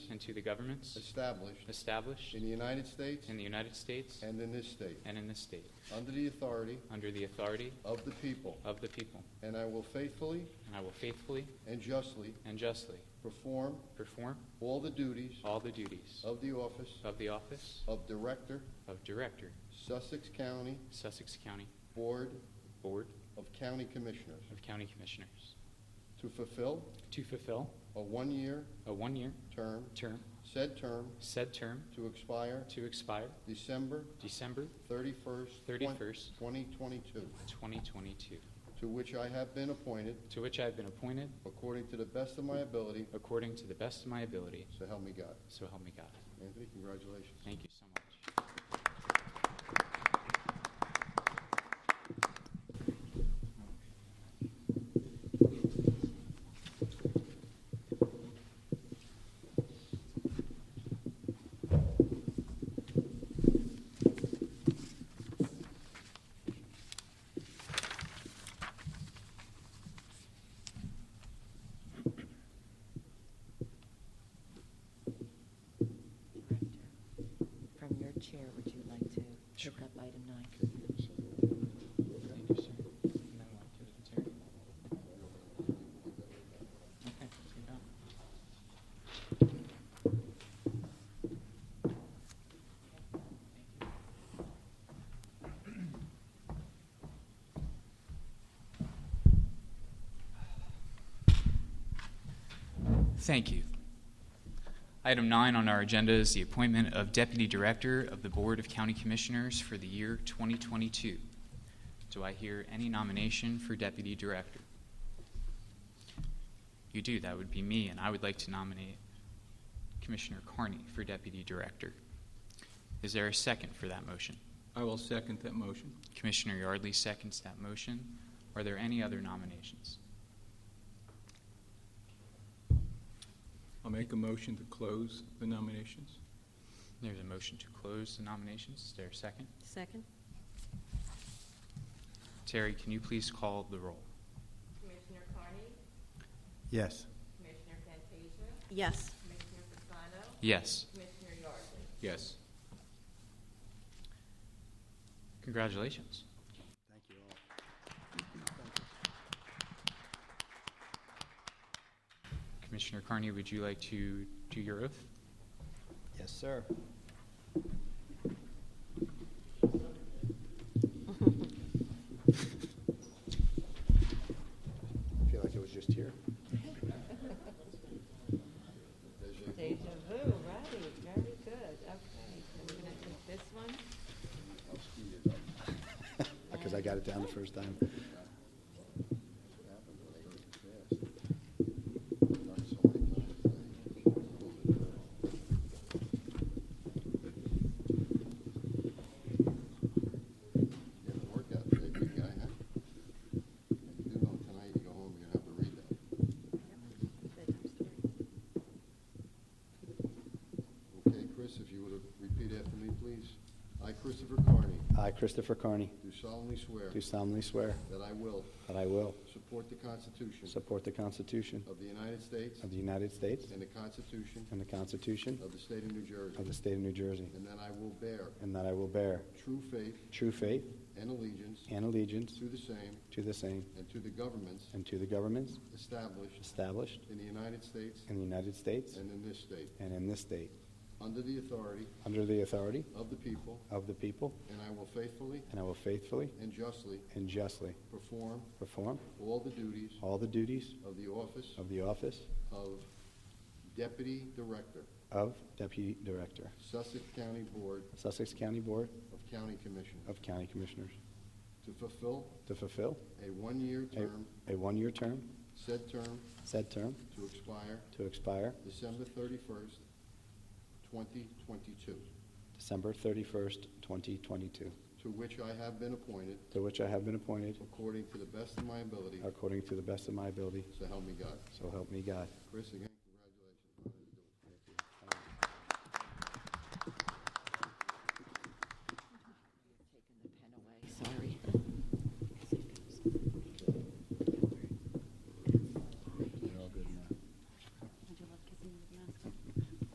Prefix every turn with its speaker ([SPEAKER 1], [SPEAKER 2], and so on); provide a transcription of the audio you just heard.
[SPEAKER 1] and to the governments
[SPEAKER 2] established
[SPEAKER 1] established
[SPEAKER 2] in the United States
[SPEAKER 1] in the United States
[SPEAKER 2] and in this state,
[SPEAKER 1] and in this state,
[SPEAKER 2] under the authority
[SPEAKER 1] under the authority
[SPEAKER 2] of the people,
[SPEAKER 1] of the people,
[SPEAKER 2] and I will faithfully
[SPEAKER 1] and I will faithfully
[SPEAKER 2] and justly
[SPEAKER 1] and justly
[SPEAKER 2] perform
[SPEAKER 1] perform
[SPEAKER 2] all the duties
[SPEAKER 1] all the duties
[SPEAKER 2] of the office
[SPEAKER 1] of the office
[SPEAKER 2] of Director,
[SPEAKER 1] of Director,
[SPEAKER 2] Sussex County
[SPEAKER 1] Sussex County
[SPEAKER 2] Board
[SPEAKER 1] Board
[SPEAKER 2] of County Commissioners,
[SPEAKER 1] of County Commissioners,
[SPEAKER 2] to fulfill
[SPEAKER 1] to fulfill
[SPEAKER 2] a one-year
[SPEAKER 1] a one-year
[SPEAKER 2] term,
[SPEAKER 1] term,
[SPEAKER 2] said term
[SPEAKER 1] said term
[SPEAKER 2] to expire
[SPEAKER 1] to expire
[SPEAKER 2] December
[SPEAKER 1] December
[SPEAKER 2] 31st,
[SPEAKER 1] 31st,
[SPEAKER 2] 2022,
[SPEAKER 1] 2022,
[SPEAKER 2] to which I have been appointed
[SPEAKER 1] to which I have been appointed
[SPEAKER 2] according to the best of my ability,
[SPEAKER 1] according to the best of my ability,
[SPEAKER 2] so help me God.
[SPEAKER 1] so help me God.
[SPEAKER 2] Anthony, congratulations.
[SPEAKER 1] Thank you so much.
[SPEAKER 3] From your chair, would you like to pick up item nine?
[SPEAKER 1] Thank you, sir. And then we'll give it to Terry. Okay, you're done. Thank you. Item nine on our agenda is the appointment of Deputy Director of the Board of County Commissioners for the year 2022. Do I hear any nomination for Deputy Director? You do, that would be me, and I would like to nominate Commissioner Carney for Deputy Director. Is there a second for that motion?
[SPEAKER 4] I will second that motion.
[SPEAKER 1] Commissioner Yardley seconds that motion. Are there any other nominations?
[SPEAKER 4] I'll make a motion to close the nominations.
[SPEAKER 1] There's a motion to close the nominations. Is there a second?
[SPEAKER 3] Second?
[SPEAKER 1] Terry, can you please call the roll?
[SPEAKER 5] Commissioner Carney?
[SPEAKER 6] Yes.
[SPEAKER 5] Commissioner Fantasia?
[SPEAKER 3] Yes.
[SPEAKER 5] Commissioner Fasano?
[SPEAKER 1] Yes.
[SPEAKER 5] Commissioner Yardley?
[SPEAKER 4] Yes.
[SPEAKER 1] Congratulations.
[SPEAKER 6] Thank you all.
[SPEAKER 1] Commissioner Carney, would you like to do your oath?
[SPEAKER 6] Yes, sir. I feel like it was just here.
[SPEAKER 5] Deja vu, right, very good, okay. So we're gonna take this one.
[SPEAKER 6] Because I got it down the first time.
[SPEAKER 2] You had a workout today, big guy, huh? You know tonight you go home, you're gonna have to read that. Okay, Chris, if you would have repeat after me, please. I, Christopher Carney,
[SPEAKER 6] I, Christopher Carney,
[SPEAKER 2] do solemnly swear
[SPEAKER 6] do solemnly swear
[SPEAKER 2] that I will
[SPEAKER 6] that I will
[SPEAKER 2] support the Constitution
[SPEAKER 6] support the Constitution
[SPEAKER 2] of the United States
[SPEAKER 6] of the United States
[SPEAKER 2] and the Constitution
[SPEAKER 6] and the Constitution
[SPEAKER 2] of the State of New
[SPEAKER 6] of
[SPEAKER 2] Jersey,
[SPEAKER 6] the State of New Jersey,
[SPEAKER 2] and that I will bear
[SPEAKER 6] and that I will bear
[SPEAKER 2] true faith
[SPEAKER 6] true faith
[SPEAKER 2] and allegiance
[SPEAKER 6] and allegiance
[SPEAKER 2] to the same
[SPEAKER 6] to the same
[SPEAKER 2] and to the governments
[SPEAKER 6] and to the governments
[SPEAKER 2] established
[SPEAKER 6] established
[SPEAKER 2] in the United States
[SPEAKER 6] in the United States
[SPEAKER 2] and in this state,
[SPEAKER 6] and in this state,
[SPEAKER 2] under the authority
[SPEAKER 6] under the authority
[SPEAKER 2] of the people,
[SPEAKER 6] of the people,
[SPEAKER 2] and I will faithfully
[SPEAKER 6] and I will faithfully
[SPEAKER 2] and justly
[SPEAKER 6] and justly
[SPEAKER 2] perform
[SPEAKER 6] perform
[SPEAKER 2] all the duties
[SPEAKER 6] all the duties
[SPEAKER 2] of the office
[SPEAKER 6] of the office
[SPEAKER 2] of Deputy Director,
[SPEAKER 6] of Deputy Director,
[SPEAKER 2] Sussex County Board
[SPEAKER 6] Sussex County Board
[SPEAKER 2] of County Commissioners,
[SPEAKER 6] of County Commissioners,
[SPEAKER 2] to fulfill
[SPEAKER 6] to fulfill
[SPEAKER 2] a one-year
[SPEAKER 6] a-
[SPEAKER 2] term,
[SPEAKER 6] a one-year term,
[SPEAKER 2] said term
[SPEAKER 6] said term
[SPEAKER 2] to expire
[SPEAKER 6] to expire
[SPEAKER 2] December 31st, 2022,
[SPEAKER 6] December 31st, 2022,
[SPEAKER 2] to which I have been appointed
[SPEAKER 6] to which I have been appointed
[SPEAKER 2] according to the best of my ability,
[SPEAKER 6] according to the best of my ability,
[SPEAKER 2] so help me God.
[SPEAKER 6] so help me God.
[SPEAKER 2] Chris, again,